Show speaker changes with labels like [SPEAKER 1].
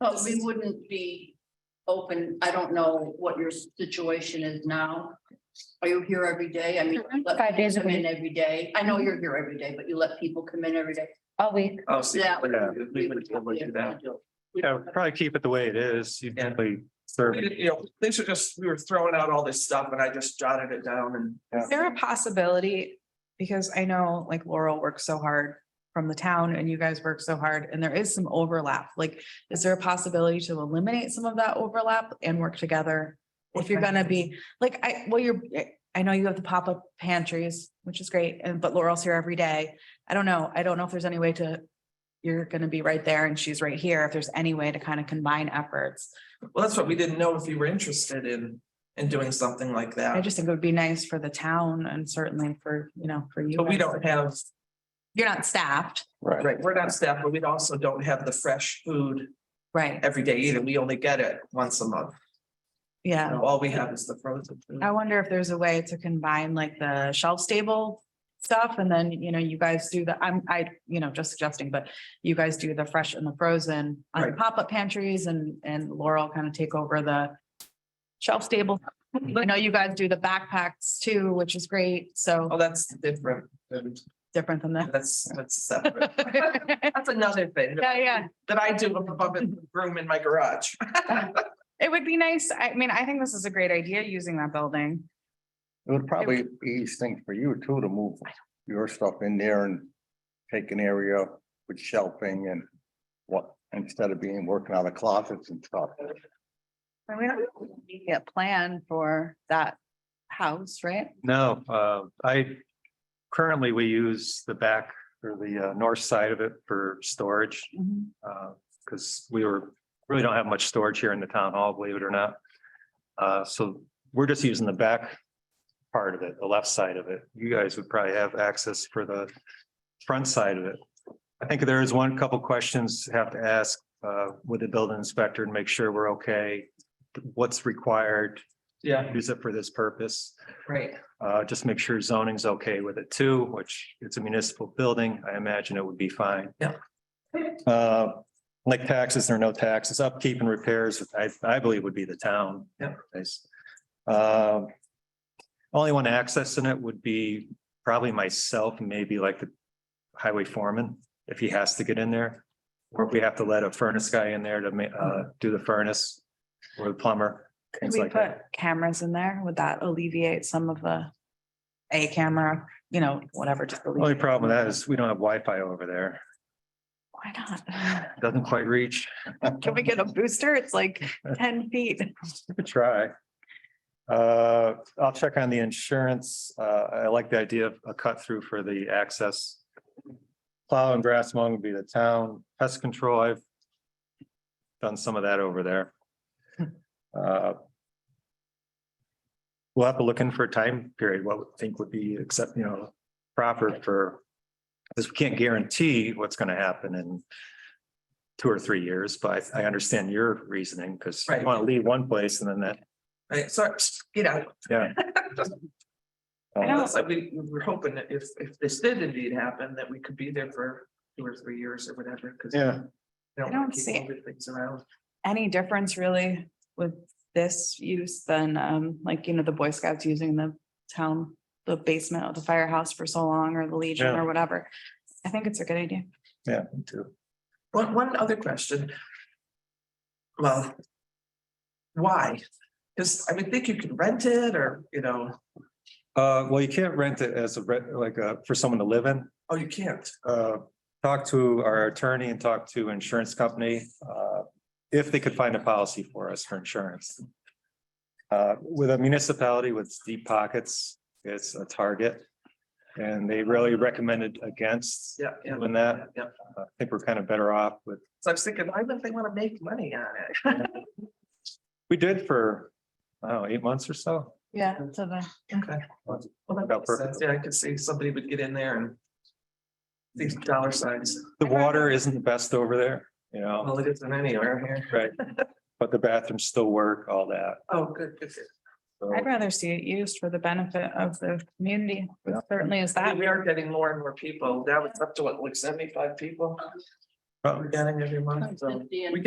[SPEAKER 1] But we wouldn't be open, I don't know what your situation is now. Are you here every day? I mean. you let
[SPEAKER 2] Five days a
[SPEAKER 1] people come in
[SPEAKER 2] week.
[SPEAKER 1] Every day. I know you're here every day, but you let people come in every day.
[SPEAKER 2] all week.
[SPEAKER 3] Oh, so
[SPEAKER 1] Yeah.
[SPEAKER 3] yeah, we
[SPEAKER 1] would
[SPEAKER 3] would be able to do that.
[SPEAKER 4] Yeah, probably keep it the way it is. You
[SPEAKER 3] Yeah.
[SPEAKER 4] definitely serve.
[SPEAKER 3] We- You know, things are just, we were throwing out all this stuff and I just jotted it down and.
[SPEAKER 5] Is there a possibility? Because I know like Laurel works so hard from the town and you guys work so hard and there is some overlap. Like, is there a possibility to eliminate some of that overlap and work together? If you're gonna be, like, I, well, you're, I know you have the pop-up pantries, which is great, and but Laurel's here every day. I don't know. I don't know if there's any way to, you're gonna be right there and she's right here. If there's any way to kind of combine efforts.
[SPEAKER 3] Well, that's what we didn't know if you were interested in, in doing something like
[SPEAKER 5] I
[SPEAKER 3] that.
[SPEAKER 5] just think it would be nice for the town and certainly for, you know, for you.
[SPEAKER 3] But we
[SPEAKER 5] guys.
[SPEAKER 3] don't have,
[SPEAKER 5] You're not staffed.
[SPEAKER 3] right, we're not staff, but we also don't have the fresh food
[SPEAKER 5] Right,
[SPEAKER 3] every day either. We only get it once a month. You
[SPEAKER 5] yeah.
[SPEAKER 3] know, All we have is the frozen food.
[SPEAKER 5] I wonder if there's a way to combine like the shelf stable stuff and then, you know, you guys do the, I'm, I, you know, just suggesting, but you guys do the fresh and the frozen on the
[SPEAKER 3] Right.
[SPEAKER 5] pop-up pantries and, and Laurel kind of take over the shelf stable. I know you guys do the backpacks too, which is great. So
[SPEAKER 3] Oh, that's different.
[SPEAKER 5] different than that.
[SPEAKER 3] That's, that's separate. That's another thing
[SPEAKER 5] Yeah, yeah.
[SPEAKER 3] that I do above in the room in my garage.
[SPEAKER 5] It would be nice. I mean, I think this is a great idea using that building.
[SPEAKER 6] It would probably be easy thing for you too to move your stuff in there and take an area with shelving and what, instead of being working out of closets and stuff.
[SPEAKER 2] And we don't have an immediate plan for that house, right?
[SPEAKER 4] No, uh, I, currently we use the back or the uh, north side of it for storage.
[SPEAKER 3] Mm-hmm.
[SPEAKER 5] Mhm.
[SPEAKER 4] Uh, because we were, really don't have much storage here in the town hall, believe it or not. Uh, so we're just using the back part of it, the left side of it. You guys would probably have access for the front side of it. I think there is one couple questions have to ask, uh, with the building inspector and make sure we're okay. What's required,
[SPEAKER 3] Yeah,
[SPEAKER 4] use it for this purpose.
[SPEAKER 3] right.
[SPEAKER 4] Uh, just make sure zoning's okay with it too, which it's a municipal building. I imagine it would be fine.
[SPEAKER 3] Yeah.
[SPEAKER 4] Uh, like taxes or no taxes, upkeep and repairs, I, I believe would be the town.
[SPEAKER 3] Yeah.
[SPEAKER 4] Nice. Um, Only one accessing it would be probably myself, and maybe like the highway foreman, if he has to get in there. Or if we have to let a furnace guy in there to ma- uh, do the furnace or the plumber,
[SPEAKER 5] Could
[SPEAKER 4] things
[SPEAKER 5] we
[SPEAKER 4] like that.
[SPEAKER 5] put cameras in there? Would that alleviate some of the a camera, you know, whatever? just
[SPEAKER 4] Only
[SPEAKER 5] alleviate-
[SPEAKER 4] problem with that is we don't have Wi-Fi over there.
[SPEAKER 5] Why not?
[SPEAKER 4] Doesn't quite reach.
[SPEAKER 5] Can we get a booster? It's like ten feet.
[SPEAKER 4] Give it a Try. Uh, I'll check on the insurance. Uh, I like the idea of a cut through for the access. Plow and grass mowing would be the town. Pest control, I've done some of that over there. Uh, We'll have to look in for a time period, what we think would be accept, you know, proper for, because we can't guarantee what's going to happen in two or three years, but I I understand your reasoning because you
[SPEAKER 3] Right.
[SPEAKER 4] want to leave one place and then that
[SPEAKER 3] Right, so, get out.
[SPEAKER 4] Yeah. Uh,
[SPEAKER 3] I know, it's like we, we were hoping that if, if this did indeed happen, that we could be there for two or three years or whatever, because.
[SPEAKER 4] Yeah,
[SPEAKER 3] I
[SPEAKER 5] I don't see it.
[SPEAKER 3] Things around.
[SPEAKER 5] Any difference really with this use than um, like, you know, the Boy Scouts using the town, the basement of the firehouse for so long or the Legion
[SPEAKER 4] Yeah.
[SPEAKER 5] or whatever? I think it's a good idea.
[SPEAKER 4] yeah, me too.
[SPEAKER 3] One, one other question. Well. Why? Because I would think you could rent it or, you know,
[SPEAKER 4] Uh, well, you can't rent it as a, re- like, uh, for someone to live in.
[SPEAKER 3] oh, you can't.
[SPEAKER 4] Uh, talk to our attorney and talk to insurance company, uh, if they could find a policy for us for insurance. Uh, with a municipality with deep pockets, it's a target. And they really recommended against.
[SPEAKER 3] Yeah, yeah.
[SPEAKER 4] Doing that.
[SPEAKER 3] Yeah.
[SPEAKER 4] Uh, I think we're kind of better off with,
[SPEAKER 3] So I was thinking, why wouldn't they want to make money on it?
[SPEAKER 4] we did for, I don't know, eight months or so.
[SPEAKER 5] Yeah, so the.
[SPEAKER 3] Okay. Well, that
[SPEAKER 4] About
[SPEAKER 3] makes sense. Yeah, I could see somebody would get in there and. These dollar signs,
[SPEAKER 4] The water isn't the best over there, you know?
[SPEAKER 3] well, it isn't anywhere here.
[SPEAKER 4] Right. But the bathrooms still work, all that.
[SPEAKER 3] Oh, good, good, good.
[SPEAKER 4] So
[SPEAKER 5] I'd rather see it used for the benefit of the community, which certainly is
[SPEAKER 3] I
[SPEAKER 5] that.
[SPEAKER 3] mean, we are getting more and more people. Now it's up to what, like seventy-five people
[SPEAKER 4] Oh.
[SPEAKER 3] we're getting every month, so.